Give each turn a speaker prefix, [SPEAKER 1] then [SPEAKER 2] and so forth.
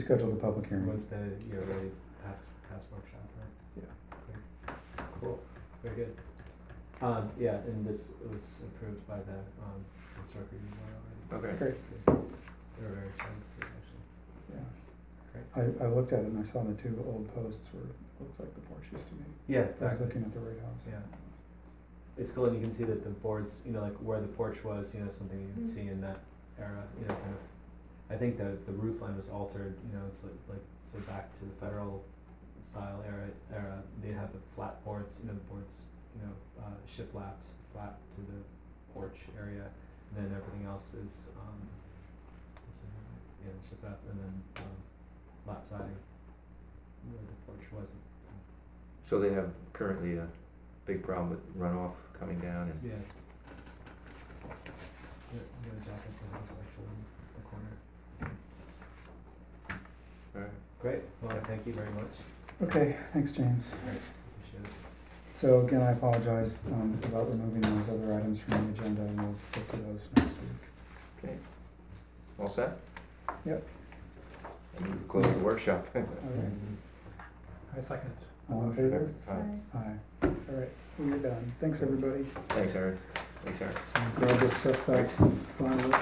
[SPEAKER 1] Schedule the public hearing.
[SPEAKER 2] Once the, E you know, really past, past workshop, right? Yeah. Cool, very good. Um, yeah, and this was approved by the, um, historic review board already.
[SPEAKER 3] Okay.
[SPEAKER 1] Great.
[SPEAKER 2] That's good. They were very excited to see it, actually.
[SPEAKER 1] Yeah. I, I looked at it and I saw the two old posts were, looks like the porch used to be. I
[SPEAKER 2] Yeah,
[SPEAKER 1] was
[SPEAKER 2] exactly,
[SPEAKER 1] looking at the right house.
[SPEAKER 2] yeah. It's cool, and you can see that the boards, you know, like where the porch was, you know, something you can see in that era, you know, kind of. I think the, the roof line was altered, you know, it's like, like, so back to the federal style era, era, they'd have the flat boards, you know, the boards, you know, uh, shiplapped, flat to the porch area, and then everything else is, um, is in, uh, yeah, shiplap, and then, um, lap siding, where the porch was,
[SPEAKER 3] So they have currently a big problem with runoff coming down and
[SPEAKER 2] yeah. Yeah, you gotta jack up the house actually in the corner, so.
[SPEAKER 3] Alright.
[SPEAKER 2] Great, well, thank you very much.
[SPEAKER 1] Okay, thanks, James.
[SPEAKER 2] Appreciate it.
[SPEAKER 1] So again, I apologize um, about removing those other items from the agenda and we'll get to those next week.
[SPEAKER 3] all set?
[SPEAKER 1] Yep.
[SPEAKER 3] And you close the workshop.
[SPEAKER 1] Okay.
[SPEAKER 2] I second.
[SPEAKER 1] All in favor?
[SPEAKER 3] Aye.
[SPEAKER 1] Aye. All right, we are done. Thanks, everybody.
[SPEAKER 3] Thanks, Eric. Thanks, Eric.
[SPEAKER 1] So grab this stuff back, file it.